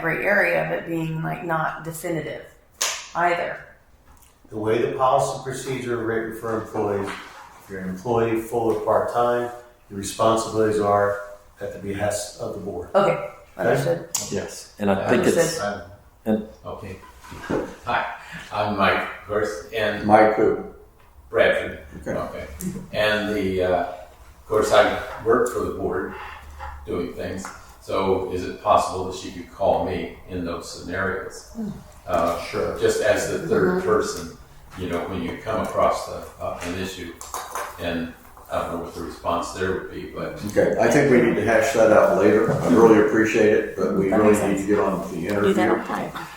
gray area of it being like not definitive either. The way the policy procedure written for employees, if you're an employee full or part-time, your responsibilities are at the behest of the board. Okay, understood. Yes, and I think it's Um, Okay. Hi, I'm Mike Hurst and Mike who? Bradford. Okay. And the, uh, of course, I work for the board doing things. So is it possible that she could call me in those scenarios? Uh, Sure. just as the 3rd person, you know, when you come across the, uh, an issue, and I don't know what the response there would be, but Okay, I think we need to hash that out later. I really appreciate it, but we That really makes need to get on with the interview.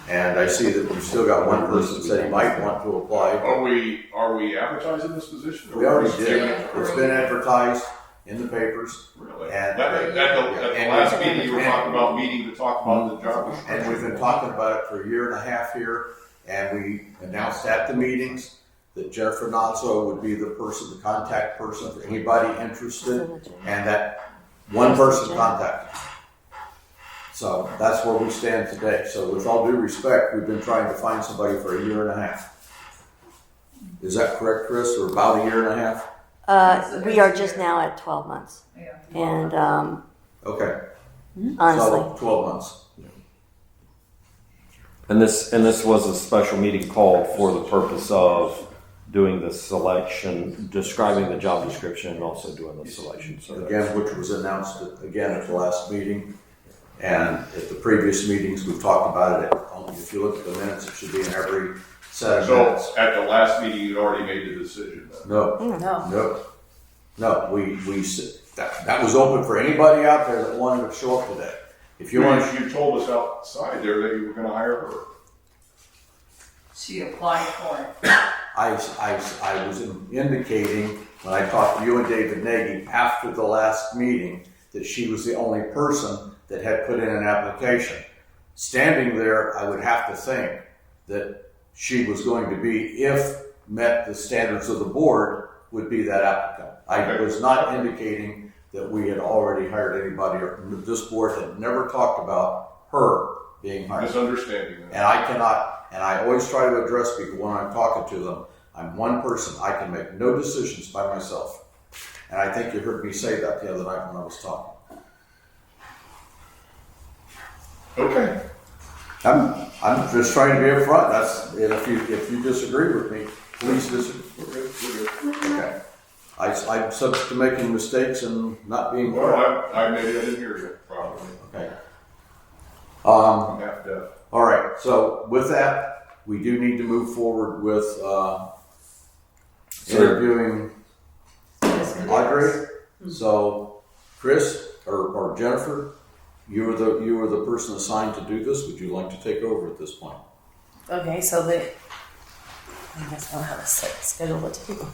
And I see that we've still got one person said might want to apply. Are we, are we advertising this position? We already Yeah, did. It's been advertised in the papers Really? At and, the, at the, at the And- last meeting, you were talking about meeting to talk about the job description. and we've been talking about it for a year and a half here. And we announced at the meetings that Jeff Renazzo would be the person, the contact person for anybody interested. and that one person contacted. So that's where we stand today. So with all due respect, we've been trying to find somebody for a year and a half. Is that correct, Chris? Or about a year and a half? Uh, we are just now at 12 months. Yeah. And um, Okay, honestly, so twelve months. and this and this was a special meeting called for the purpose of doing the selection, describing the job description, and also doing the selection survey. Again, which was announced at- again at the last meeting. And at the previous meetings, we've talked about it. Only If you look at the minutes, it should be in every set of minutes. So at the last meeting, you'd already made the decision. then. No, Mm, No. No, no, we, we, s- that, that was open for anybody out there that wanted to show up today. If you You, want, you told us outside there that you were gonna hire her. She applied for it. I, s- I s- I was indicating, when I talked to you and David Nagy after the last meeting, that she was the only person that had put in an application. Standing there, I would have to think that she was going to be, if met the standards of the board, would be that applicant. I Okay. was not indicating that we had already hired anybody, or this board had never talked about her being hired. Misunderstanding. then. And I cannot, and I always try to address people when I'm talking to them. I'm one person. I can make no decisions by myself. And I think you heard me say that the other night when I was talking. Okay, I'm, I'm just trying to be upfront. That's, and if you, if you disagree with me, please disagree. we're good, we're good. Okay. I, I'm subject to making mistakes and not being Well, correct. I, I, maybe I didn't hear you properly. Okay. Um, I'm half deaf. All right, so with that, we do need to move forward with uh, Sure. interviewing Audrey. Mm-hmm. So Chris or, or Jennifer, you were the, you were the person assigned to do this. Would you like to take over at this point? Okay, so the I guess I don't have a set schedule to do.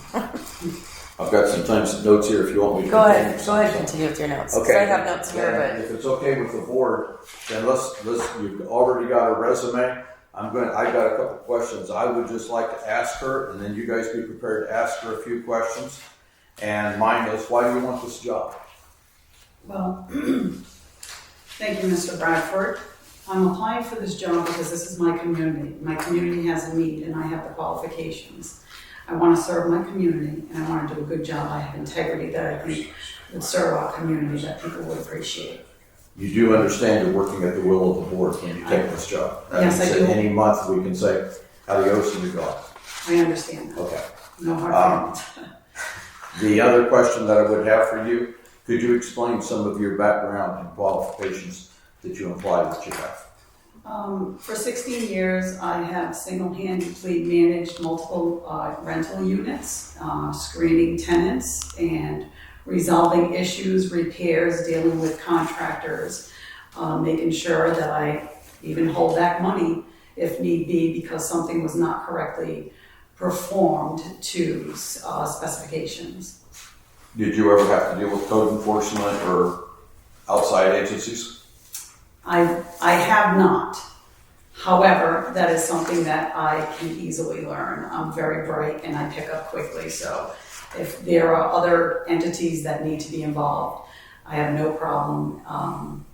I've got some times notes here if you want me to. Go continue ahead, go some- ahead, some- continue with your notes. 'cause Okay. I have notes Then here, If it's okay with the board, then let's, let's, you've already got a resume. I'm going, I've got a couple questions I would just like to ask her, and then you guys be prepared to ask her a few questions. And mine is, why do you want this job? Well, thank you, Mr. Bradford. I'm applying for this job because this is my community. My community has a need and I have the qualifications. I want to serve my community and I want to do a good job. I have integrity that I think would serve our community that people would appreciate. You do understand you're working at the will of the board when you take this job. That Yes, I means that do. Any month, we can say, adios and you go. I understand that. Okay. No Um, hard feelings. The other question that I would have for you, could you explain some of your background and qualifications that you implied that you have? Um, for 16 years, I have single-handedly managed multiple uh, rental units, uh, screening tenants and resolving issues, repairs, dealing with contractors, uh, making sure that I even hold back money if need be because something was not correctly performed to uh, specifications. Did you ever have to deal with code enforcement or outside agencies? I, I have not. However, that is something that I can easily learn. I'm very bright and I pick up quickly, so if there are other entities that need to be involved, I have no problem um,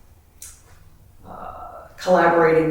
uh, collaborating